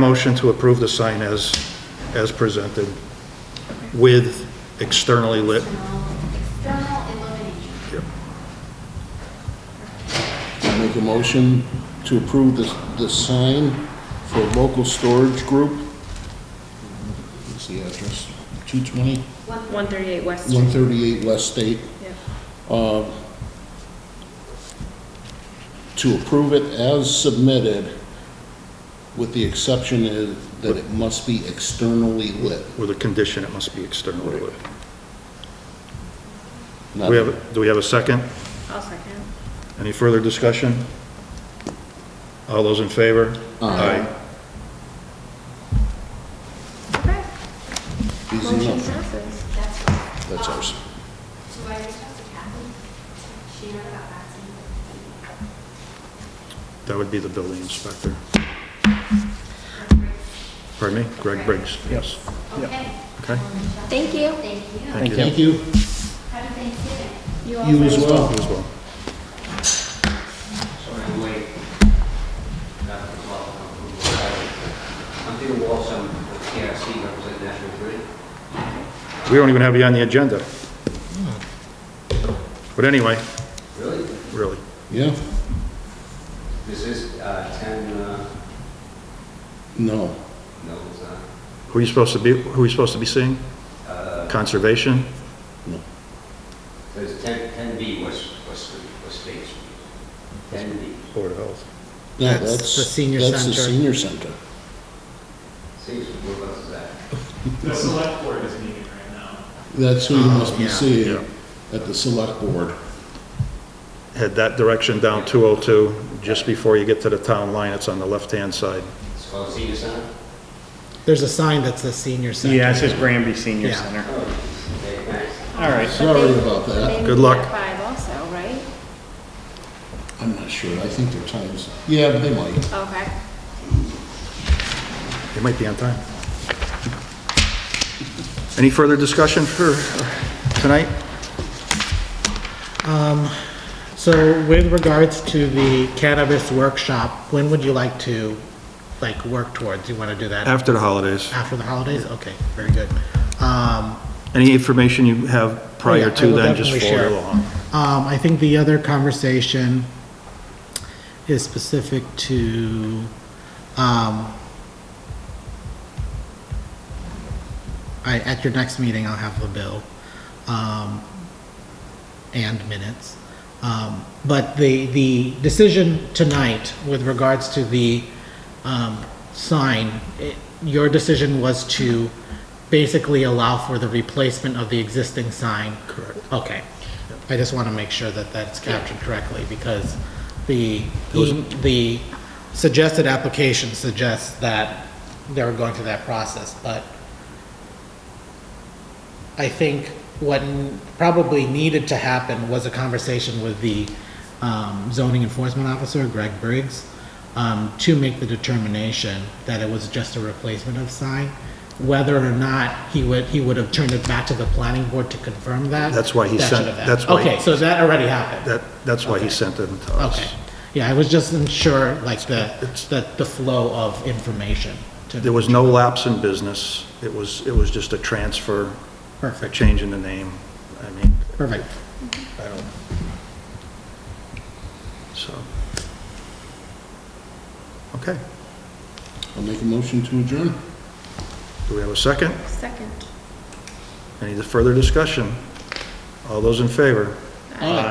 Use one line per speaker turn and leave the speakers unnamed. Motion to approve the sign as, as presented with externally lit.
External illumination.
Yep.
I make a motion to approve the, the sign for local storage group. What's the address? 220,
138 West Street.
138 West State,
Yep.
to approve it as submitted with the exception is that it must be externally lit.
With a condition, it must be externally lit.
Not-
We have, do we have a second?
I'll second.
Any further discussion? All those in favor?
Aye.
Okay.
Easy
Motion
enough.
passes.
That's
That's ours.
So I reached out to Kathy. She never got back to me.
That would be the building inspector. Pardon me? Greg Briggs. Yes.
Okay.
Okay.
Thank you. Thank you.
Thank you.
Thank you.
Happy Thanksgiving.
You as well.
You as well.
Sorry, I'm late. Not the clock, I'm from the highway. I'm Peter Walsh, I'm with KRC, represent National Grid.
We don't even have you on the agenda. But anyway,
Really?
really.
Yeah?
This is uh, 10, uh,
No.
no, it's not.
Who are you supposed to be, who are you supposed to be seeing? Uh, Conservation?
There's 10, 10B West, West Street, West State Street. 10B.
Board of Health.
No,
That's
that's,
the senior
that's the
center.
senior center.
Six, what else is that?
The select board is meeting right now.
That's who you must be
Oh, yeah,
seeing
yeah.
at the select board.
Head that direction down 202, just before you get to the town line, it's on the left-hand side.
It's called Senior Center?
There's a sign that says senior center.
Yeah, it says Granby Senior
Yeah.
Center.
Oh, okay, thanks.
All right.
Sorry about that.
Good luck.
Five also, right?
I'm not sure, I think their times, yeah, they might.
Okay.
It might be on time. Any further discussion for tonight?
So with regards to the cannabis workshop, when would you like to, like, work towards? You want to do that
After the holidays.
after the holidays? Okay, very good. Um,
Any information you have
Oh,
prior
yeah, I
to
will
then, just
definitely
forward
share.
along.
Um, I think the other conversation is specific to, um, I, at your next meeting, I'll have a bill, um, and minutes. Um, but the, the decision tonight with regards to the, um, sign, it- your decision was to basically allow for the replacement of the existing sign. Correct. Okay. I just want to make sure that that's captured correctly because the, e- the suggested application suggests that they were going through that process, but I think what n- probably needed to happen was a conversation with the um, zoning enforcement officer, Greg Briggs, um, to make the determination that it was just a replacement of sign. Whether or not he would, he would have turned it back to the planning board to confirm that.
That's why he
that
sent-
should have
that's
happened.
why he-
Okay, so that already happened.
That, that's why he sent them to us.
Okay. Yeah, I was just unsure, like, the,
It's-
the, the flow of information. to-
There was no lapse in business. It was, it was just a transfer, a
Perfect,
change in the name. I mean,
perfect.
I don't, so. Okay,
I'll make a motion to adjourn.
do we have a second?
Second.
Any further discussion? All those in favor?
Aye.